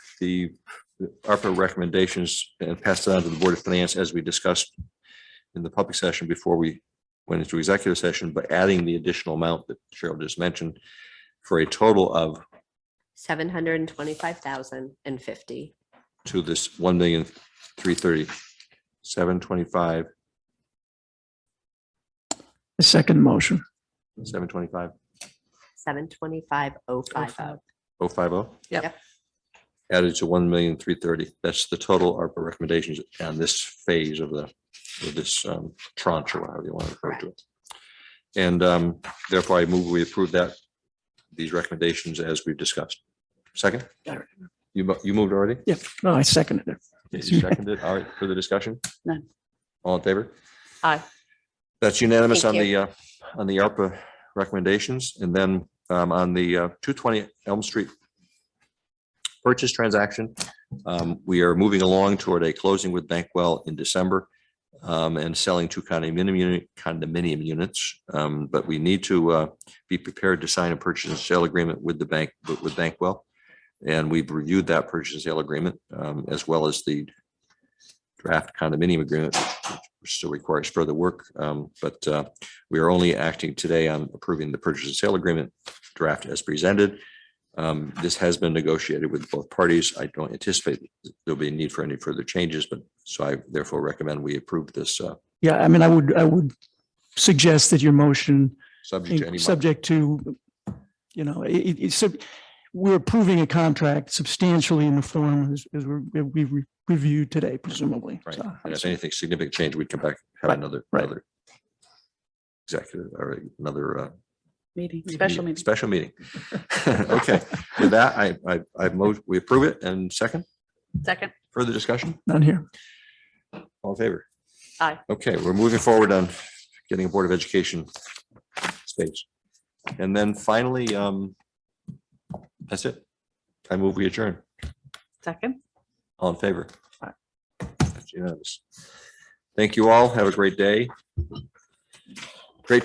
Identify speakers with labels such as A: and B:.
A: the the ARPA recommendations and pass that on to the Board of Finance as we discussed in the public session before we went into executive session, but adding the additional amount that Cheryl just mentioned for a total of
B: seven hundred and twenty-five thousand and fifty.
A: to this one million, three thirty, seven twenty-five,
C: The second motion.
A: seven twenty-five,
B: Seven twenty-five oh five oh.
A: oh five oh?
B: Yep.
A: Added to one million, three thirty. That's the total ARPA recommendations on this phase of the, of this um, tranche or however you want to refer to it. And um, therefore I move we approve that, these recommendations as we've discussed. Second?
C: All right.
A: You, mo- you moved already?
C: Yep, no, I seconded it.
A: You seconded, all right, further discussion?
C: None.
A: All in favor?
B: Aye.
A: That's unanimous on
B: Thank
A: the, uh, on the ARPA recommendations, and then, um, on the, uh, two twenty Elm Street purchase transaction, um, we are moving along toward a closing with Bankwell in December, um, and selling two condominium, uni- condominium units, um, but we need to, uh, be prepared to sign a purchase and sale agreement with the bank, with Bankwell. And we've reviewed that purchase and sale agreement um, as well as the draft condominium agreement, which still requires further work. Um, But uh, we are only acting today on approving the purchase and sale agreement draft as presented. Um, This has been negotiated with both parties. I don't anticipate there'll be a need for any further changes, but so I therefore recommend we approve this uh,
C: Yeah, I mean, I would, I would suggest that your motion,
A: subject to any.
C: subject to, you know, it, it- it's, sub- we're approving a contract substantially in the form as, as we, we reviewed today presumably.
A: Right.
C: So,
A: And if anything significant change, we'd come back, have
C: Right,
A: another,
C: right.
A: another executive or another uh,
D: Meeting, special meeting.
A: Special meeting. Okay, with that, I, I, I move, we approve it and second,
D: Second.
A: further discussion,
C: None here.
A: all in favor?
D: Aye.
A: Okay, we're moving forward on getting a Board of Education space. And then finally, um, that's it. I move we adjourn.
D: Second.
A: All in favor? That's unanimous. Thank you all. Have a great day.